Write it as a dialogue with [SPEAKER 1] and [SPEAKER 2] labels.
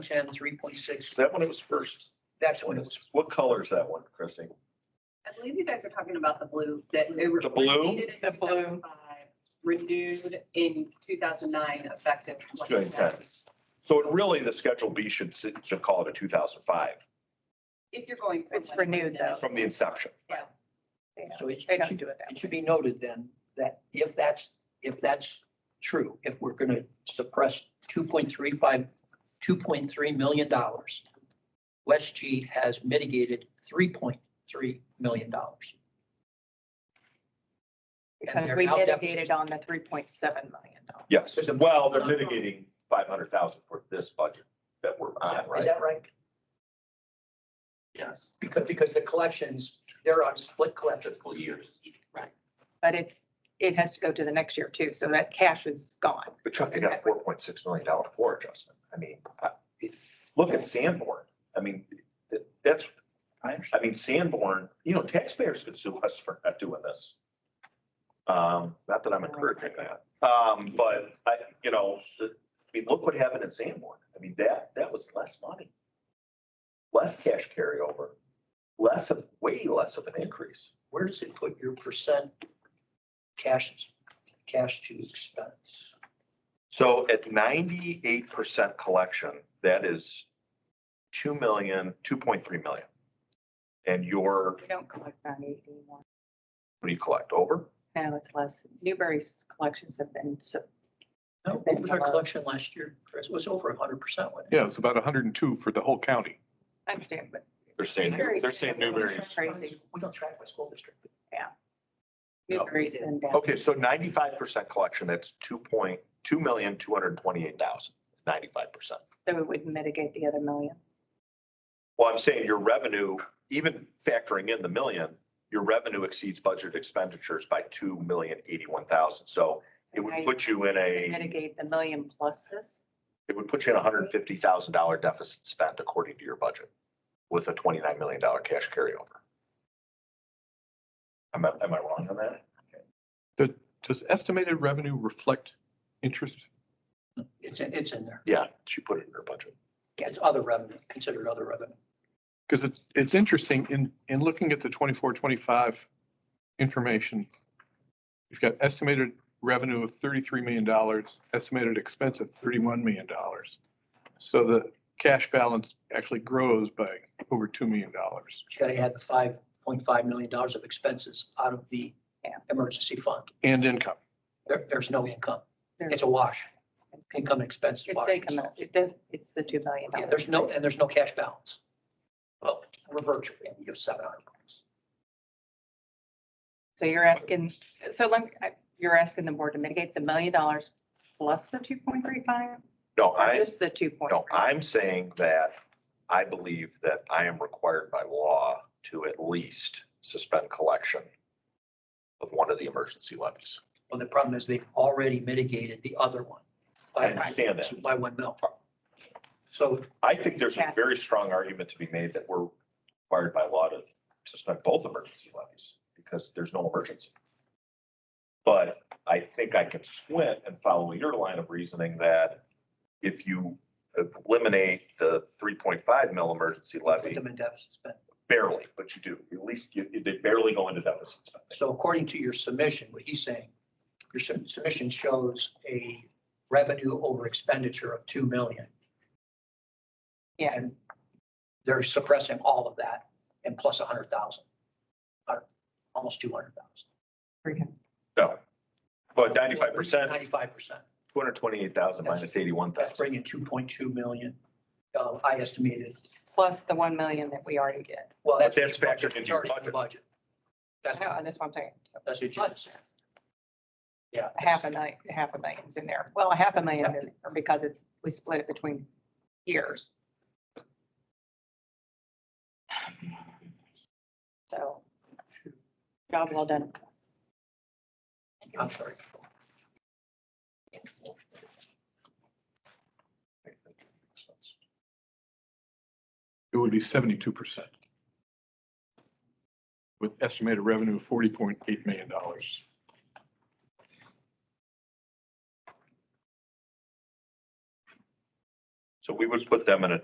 [SPEAKER 1] ten, three point six,
[SPEAKER 2] Is that when it was first?
[SPEAKER 1] that's when it was.
[SPEAKER 2] What color is that one, Christie?
[SPEAKER 3] I believe you guys are talking about the blue that. they were
[SPEAKER 2] The blue?
[SPEAKER 3] created in
[SPEAKER 4] The blue.
[SPEAKER 3] 2005, Renewed in two thousand nine effective.
[SPEAKER 2] It's doing that. So it really, the Schedule B should, sit- should call it a two thousand five
[SPEAKER 3] If you're going. from
[SPEAKER 4] It's
[SPEAKER 3] one
[SPEAKER 4] renewed,
[SPEAKER 3] to
[SPEAKER 4] though.
[SPEAKER 3] another.
[SPEAKER 2] from the inception.
[SPEAKER 3] Yeah.
[SPEAKER 1] So it
[SPEAKER 4] They
[SPEAKER 1] should,
[SPEAKER 4] don't do it that
[SPEAKER 1] it
[SPEAKER 4] way.
[SPEAKER 1] should be noted then that if that's, if that's true, if we're gonna suppress 2.35 2.3 million dollars, West G has mitigated three point three million dollars.
[SPEAKER 4] Because
[SPEAKER 1] they're
[SPEAKER 4] we
[SPEAKER 1] now
[SPEAKER 4] mitigated
[SPEAKER 1] deficits.
[SPEAKER 4] on the three point seven million dollars.
[SPEAKER 2] Yes.
[SPEAKER 1] There's a-
[SPEAKER 2] Well, they're mitigating five hundred thousand for this budget that we're on,
[SPEAKER 1] Is
[SPEAKER 2] right?
[SPEAKER 1] that right?
[SPEAKER 5] Ah, Yes,
[SPEAKER 1] Because, because the collections, they're on split collections.
[SPEAKER 5] fiscal years.
[SPEAKER 4] But it's, it has to go to the next year too, so that cash is gone.
[SPEAKER 2] But Chuck, they got a four point six million dollar floor adjustment. I mean, I- look at Sanborn. I mean, th- that's,
[SPEAKER 1] I understand.
[SPEAKER 2] I mean, Sanborn, you know, taxpayers could sue us for not doing this. Um, not that I'm encouraging that, um, but I, you know, the- I mean, look what happened in Sanborn. I mean, that, that was less money. Less cash carryover, less of, way less of an increase.
[SPEAKER 1] Where does it put your percent cash, cash to expense?
[SPEAKER 2] So at ninety-eight percent collection, that is two million, two point three million. And your,
[SPEAKER 4] We don't collect ninety-eight anymore.
[SPEAKER 2] what do you collect, over?
[SPEAKER 4] Now it's less. Newberry's collections have been, so
[SPEAKER 1] No, what was our collection last year, Chris? It was over a hundred percent, wasn't it?
[SPEAKER 6] Yeah, it's about hundred and two for the whole county.
[SPEAKER 4] I understand, but.
[SPEAKER 5] They're saying,
[SPEAKER 4] Newberry's
[SPEAKER 5] they're saying
[SPEAKER 4] been
[SPEAKER 5] Newberry's.
[SPEAKER 4] Crazy.
[SPEAKER 1] We don't track by school district.
[SPEAKER 2] No.
[SPEAKER 4] Newberry's been down.
[SPEAKER 2] Okay, so ninety-five percent collection, that's two point, two million, two hundred and twenty-eight thousand, ninety-five percent.
[SPEAKER 4] So it would mitigate the other million.
[SPEAKER 2] Well, I'm saying your revenue, even factoring in the million, your revenue exceeds budget expenditures by two million, eighty-one thousand. So it would
[SPEAKER 4] Right.
[SPEAKER 2] put you in a,
[SPEAKER 4] Mitigate the million plus this.
[SPEAKER 2] it would put you in a hundred and fifty thousand dollar deficit spent according to your budget with a twenty-nine million dollar cash carryover. Am I, am I wrong on that?
[SPEAKER 6] The- Does estimated revenue reflect interest?
[SPEAKER 1] It's, in- it's in there.
[SPEAKER 2] Yeah, she put it in her budget.
[SPEAKER 1] It's other revenue, considered other revenue.
[SPEAKER 6] Because it's, it's interesting in, in looking at the 24-25 information. You've got estimated revenue of thirty-three million dollars, estimated expense of thirty-one million dollars. So the cash balance actually grows by over two million dollars.
[SPEAKER 1] You gotta add the five point five million dollars of expenses out of the
[SPEAKER 4] Yeah.
[SPEAKER 1] emergency fund.
[SPEAKER 6] And income,
[SPEAKER 1] There, there's no income.
[SPEAKER 4] There's-
[SPEAKER 1] It's a wash. Income and expense is
[SPEAKER 4] It's
[SPEAKER 1] wash.
[SPEAKER 4] income, it does, it's the two million.
[SPEAKER 1] Yeah, there's no, and there's no cash balance. Well, we're virtually, you have seven hundred bucks.
[SPEAKER 4] So you're asking, so let, me- I- you're asking the board to mitigate the million dollars plus the two point three five?
[SPEAKER 2] No,
[SPEAKER 4] Or
[SPEAKER 2] I.
[SPEAKER 4] just the two point?
[SPEAKER 2] No, I'm saying that I believe that I am required by law to at least suspend collection of one of the emergency levies.
[SPEAKER 1] Well, the problem is they've already mitigated the other one. by-
[SPEAKER 2] I understand that.
[SPEAKER 1] By one mil. So
[SPEAKER 2] I think there's a very strong argument to be made that we're required by law to suspend both emergency levies because there's no emergency. But I think I can squint and follow your line of reasoning that if you eliminate the three point five mil emergency
[SPEAKER 1] put
[SPEAKER 2] levy,
[SPEAKER 1] them in deficit spend.
[SPEAKER 2] barely, but you do, at least you, they barely go into deficit spending.
[SPEAKER 1] So according to your submission, what he's saying, your sub- submission shows a revenue over expenditure of two million.
[SPEAKER 4] Yeah,
[SPEAKER 1] They're suppressing all of that and plus a hundred thousand. Uh, Almost two hundred thousand.
[SPEAKER 2] No. But Oh, ninety-five percent,
[SPEAKER 1] Ninety-five percent.
[SPEAKER 2] two hundred twenty-eight thousand minus eighty-one
[SPEAKER 1] That's
[SPEAKER 2] thousand.
[SPEAKER 1] bringing two point two million. Uh, I estimated,
[SPEAKER 4] plus the one million that we already did.
[SPEAKER 1] well, that's.
[SPEAKER 2] But that's
[SPEAKER 1] your budget.
[SPEAKER 2] factored into
[SPEAKER 1] It's
[SPEAKER 2] your
[SPEAKER 1] already in the budget. That's,
[SPEAKER 4] No, and Oh, that's what I'm saying. So
[SPEAKER 1] that's what you
[SPEAKER 4] Plus
[SPEAKER 1] just, yeah.
[SPEAKER 4] a half a million, half a million's in there. Well, a half a million is in there because it's, we split it between years. So, job well done.
[SPEAKER 1] I'm sorry.
[SPEAKER 6] it would be seventy-two percent. With estimated revenue of forty point eight million dollars.
[SPEAKER 2] So we would put them in a